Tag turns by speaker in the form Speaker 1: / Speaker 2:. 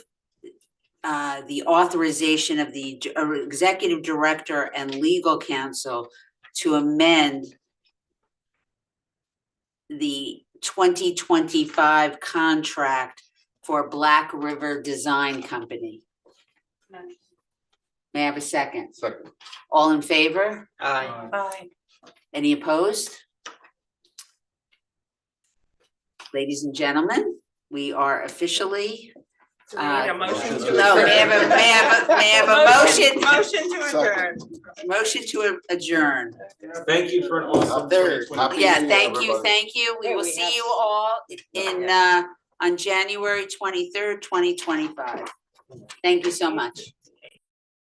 Speaker 1: uh, the authorization of the d- uh, executive director and legal counsel to amend the twenty twenty-five contract for Black River Design Company. May I have a second?
Speaker 2: Second.
Speaker 1: All in favor?
Speaker 3: Aye.
Speaker 4: Aye.
Speaker 1: Any opposed? Ladies and gentlemen, we are officially,
Speaker 4: Do we need a motion
Speaker 2: Motion
Speaker 4: to
Speaker 2: to
Speaker 1: no, may I Uh, have a,
Speaker 4: adjourn?
Speaker 1: may I have a, may I have a
Speaker 4: Motion-
Speaker 1: motion,
Speaker 4: Motion to adjourn.
Speaker 2: Second.
Speaker 1: motion to adjourn.
Speaker 3: Thank you for an awesome.
Speaker 2: There.
Speaker 3: 2025.
Speaker 1: Yeah,
Speaker 2: Happy New Year,
Speaker 1: thank you,
Speaker 2: everybody.
Speaker 1: thank you. We
Speaker 4: Hey,
Speaker 1: will
Speaker 4: we
Speaker 1: see
Speaker 4: have-
Speaker 1: you all in, uh, on January twenty-third, twenty twenty-five. Thank you so much.